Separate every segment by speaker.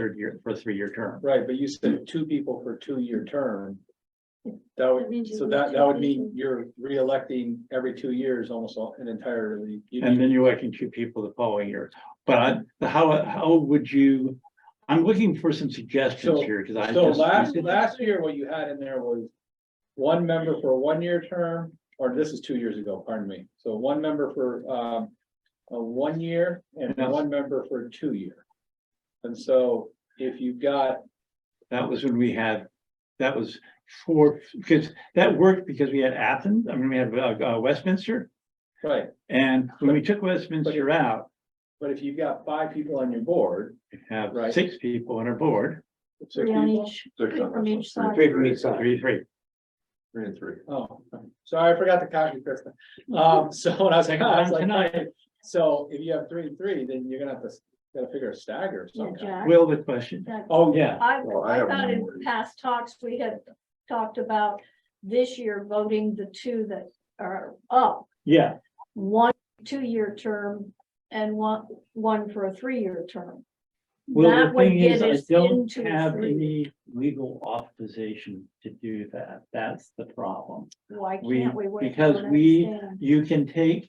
Speaker 1: third year, for a three-year term.
Speaker 2: Right, but you said two people for two-year term. That
Speaker 3: That
Speaker 2: would,
Speaker 3: means you
Speaker 2: so
Speaker 3: lose
Speaker 2: that,
Speaker 3: two
Speaker 2: that would mean
Speaker 3: people.
Speaker 2: you're re-electing every two years almost all- and entirely. You
Speaker 1: And
Speaker 2: need-
Speaker 1: then you're electing two people the following year. But I- the how, how would you, I'm looking for some suggestions
Speaker 2: So-
Speaker 1: here, because I
Speaker 2: So
Speaker 1: just.
Speaker 2: last, last year, what you had in there was one member for a one-year term, or this is two years ago, pardon me. So one member for, um, a one year and
Speaker 1: Yes.
Speaker 2: one member for a two-year. And so if you've got,
Speaker 1: That was when we had, that was four, because that worked because we had Athens, I mean, we had uh, uh, Westminster.
Speaker 2: right,
Speaker 1: And when we took Westminster out,
Speaker 2: but if you've got five people on your board.
Speaker 1: we have
Speaker 2: Right.
Speaker 1: six people on our board,
Speaker 2: six
Speaker 3: Three on
Speaker 2: people-
Speaker 3: each, three from each side.
Speaker 4: Three from each side.
Speaker 1: three, three.
Speaker 4: Three and three.
Speaker 2: Oh, sorry, I forgot to copy Krista. Um, so when I was like,
Speaker 1: Second
Speaker 2: I was
Speaker 1: time
Speaker 2: like,
Speaker 1: tonight.
Speaker 2: so if you have three and three, then you're gonna have to, gotta figure a stagger or
Speaker 3: Yeah,
Speaker 2: something.
Speaker 3: Jack.
Speaker 1: Will the question,
Speaker 3: Jack.
Speaker 2: Oh, yeah,
Speaker 3: I,
Speaker 4: Well, I
Speaker 3: I
Speaker 4: have
Speaker 3: thought in
Speaker 4: one.
Speaker 3: past talks, we had talked about this year voting the two that are up.
Speaker 1: yeah,
Speaker 3: One two-year term and one, one for a three-year term.
Speaker 1: well,
Speaker 3: That
Speaker 1: the
Speaker 3: would
Speaker 1: thing is,
Speaker 3: get
Speaker 1: I
Speaker 3: us
Speaker 1: don't
Speaker 3: into
Speaker 1: have
Speaker 3: three.
Speaker 1: any legal authorization to do that, that's the problem.
Speaker 3: Why
Speaker 1: We-
Speaker 3: can't we? wait?
Speaker 1: because
Speaker 3: Don't
Speaker 1: we-
Speaker 3: understand.
Speaker 1: You can take,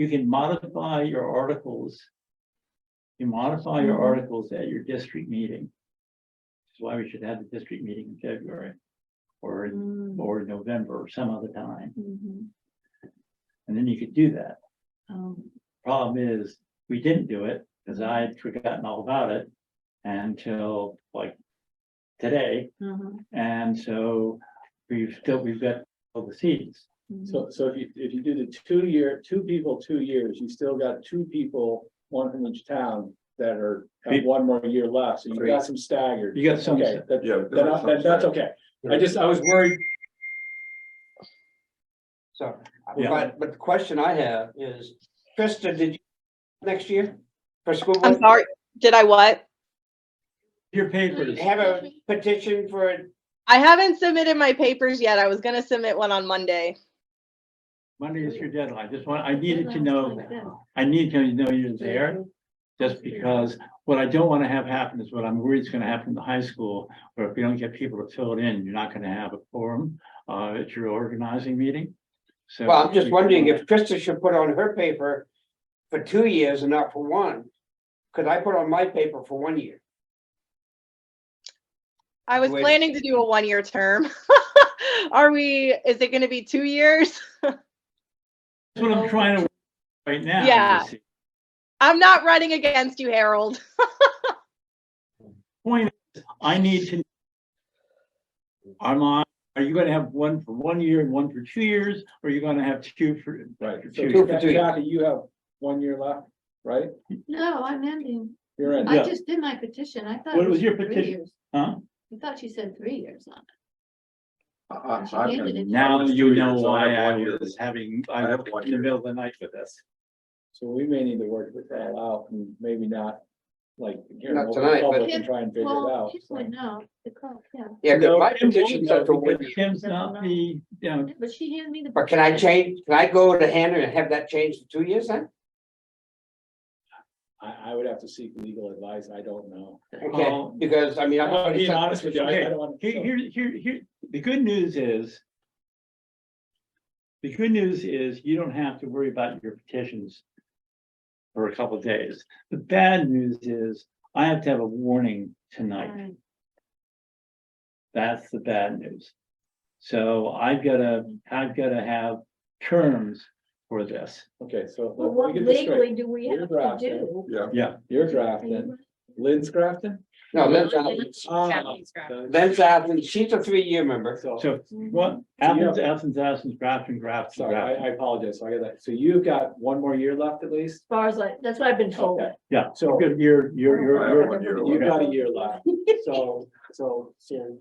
Speaker 1: you can modify your articles. You modify your
Speaker 3: Mhm.
Speaker 1: articles at your district meeting. That's why we should have the district meeting in February. Or, in-
Speaker 4: Mm-hmm.
Speaker 3: Mm,
Speaker 1: or in November or some other time,
Speaker 3: mhm,
Speaker 1: and then you could do that.
Speaker 3: um,
Speaker 4: Mm-hmm.
Speaker 1: Problem is, we didn't do it, because I had forgotten all about it until like today,
Speaker 3: mhm,
Speaker 4: Mm-hmm.
Speaker 1: and so we've still, we've got all the seats.
Speaker 3: mhm.
Speaker 2: so, so if you, if you do the two-year, two people, two years, you still got two people, one from each town that are, have
Speaker 1: Be-
Speaker 2: one more year left, so you
Speaker 4: Three.
Speaker 2: got some staggered.
Speaker 1: You got some,
Speaker 2: Okay, that,
Speaker 4: Yeah.
Speaker 2: that- that- that's okay. I just, I was worried,
Speaker 4: So,
Speaker 1: Yeah.
Speaker 4: but, but the question I have is, Krista, did you, next year? For school,
Speaker 5: I'm
Speaker 4: board,
Speaker 5: sorry, did I what?
Speaker 1: your papers,
Speaker 4: have a petition for, it?
Speaker 5: I haven't submitted my papers yet. I was gonna submit one on Monday.
Speaker 1: Monday is your deadline, just want, I needed to know,
Speaker 3: Like that.
Speaker 1: I need to know you're there. Just because what I don't want to have happen is what I'm worried is going to happen in the high school, where if you don't get people to fill it in, you're not going to have a forum uh, at your organizing meeting. So.
Speaker 4: well, I'm just wondering if Krista should put on her paper for two years and not for one. Cause I put on my paper for one year.
Speaker 5: I was
Speaker 4: Wait.
Speaker 5: planning to do a one-year term. Are we, is it gonna be two years?
Speaker 1: That's what I'm trying to, right now. you
Speaker 5: Yeah.
Speaker 1: see.
Speaker 5: I'm not running against you, Harold.
Speaker 1: Point, is, I need to. I'm on, are you going to have one for one year and one for two years, or are you going to have two for?
Speaker 2: right,
Speaker 1: for
Speaker 2: so
Speaker 1: two
Speaker 4: Two
Speaker 1: years?
Speaker 4: for two.
Speaker 2: Kathy, you have one year left, right?
Speaker 3: No, I'm ending.
Speaker 2: You're in.
Speaker 1: Yeah.
Speaker 3: I just did my petition. I thought.
Speaker 1: What
Speaker 3: it
Speaker 1: was your
Speaker 3: three
Speaker 1: petition?
Speaker 3: years.
Speaker 1: Huh?
Speaker 3: I thought she said three years on it.
Speaker 6: I-
Speaker 3: She
Speaker 6: I- I've
Speaker 3: handed
Speaker 6: been-
Speaker 3: it to
Speaker 1: Now
Speaker 6: was
Speaker 1: you
Speaker 6: two
Speaker 1: know
Speaker 6: years, so I
Speaker 1: why
Speaker 6: have
Speaker 1: I
Speaker 6: one year.
Speaker 1: was having,
Speaker 6: I
Speaker 1: I'm
Speaker 6: have one
Speaker 1: in the
Speaker 6: year.
Speaker 1: middle of the night with this.
Speaker 2: So we may need to work with that out and maybe not like. here,
Speaker 4: Not
Speaker 2: open
Speaker 4: tonight, but-
Speaker 2: public And try and figure it
Speaker 3: Well,
Speaker 2: out.
Speaker 3: Kim
Speaker 2: so.
Speaker 3: would know, the clerk, yeah.
Speaker 4: Yeah, 'cause
Speaker 1: No,
Speaker 4: my
Speaker 1: Tim won't
Speaker 4: petition's
Speaker 1: know
Speaker 4: up for one
Speaker 1: because
Speaker 4: year.
Speaker 1: Tim's not the, you know,
Speaker 3: But she handed me the.
Speaker 4: But can I
Speaker 3: petition.
Speaker 4: change, can I go to Hannah and have that changed to two years then?
Speaker 2: I, I would have to seek legal advice. I don't know.
Speaker 4: Okay,
Speaker 1: Um,
Speaker 4: because I mean, I'm.
Speaker 2: I'm
Speaker 4: already
Speaker 2: being
Speaker 4: sent-
Speaker 2: honest with you, I I don't want.
Speaker 1: Here, here, here, here, the good news is. The good news is you don't have to worry about your petitions. For a couple of days. The bad news is I have to have a warning tonight.
Speaker 3: Alright,
Speaker 1: That's the bad news. So I've gotta, I've gotta have terms for this.
Speaker 2: Okay, so
Speaker 3: Well,
Speaker 2: let
Speaker 3: what
Speaker 2: me get this straight.
Speaker 3: legally do we
Speaker 2: You're
Speaker 3: have to
Speaker 2: drafting.
Speaker 3: do?
Speaker 6: Yeah,
Speaker 2: You're
Speaker 3: Are you-
Speaker 2: drafting. Lynn's drafting?
Speaker 4: No, Lynn's out,
Speaker 2: Ah,
Speaker 4: Lynn's out, and she's a three-year member.
Speaker 2: So,
Speaker 1: So what,
Speaker 2: So you have-
Speaker 1: Athens, Athens, Athens, Grafton, Grafton,
Speaker 2: sorry,
Speaker 1: Grafton.
Speaker 2: I, I apologize. So I got that. So you've got one more year left at least?
Speaker 3: As far as I, that's what I've been told.
Speaker 2: Okay.
Speaker 1: Yeah, so
Speaker 2: So
Speaker 1: good, you're, you're,
Speaker 6: I
Speaker 1: you're,
Speaker 6: have
Speaker 1: you're,
Speaker 6: one year
Speaker 2: you've
Speaker 6: left.
Speaker 2: got a year left. So, so, so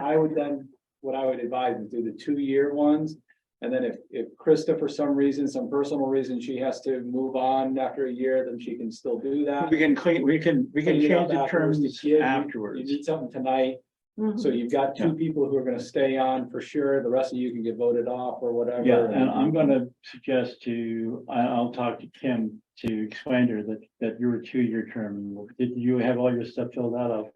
Speaker 2: I would then, what I would advise is do the two-year ones. And then if, if Krista, for some reason, some personal reason, she has to move on after a year, then she can still do that.
Speaker 1: we can clean, we can, we can
Speaker 2: Clean it up
Speaker 1: change the
Speaker 2: afterwards.
Speaker 1: terms
Speaker 2: The kid, you- You
Speaker 1: afterwards.
Speaker 2: need something tonight,
Speaker 3: Mhm.
Speaker 2: so you've got two people who are gonna stay on for sure, the rest of you can get voted off or whatever.
Speaker 1: Yeah, and I'm gonna suggest to, I, I'll talk to Kim to explain to her that, that you're a two-year term. Did you have all your stuff filled out? I'll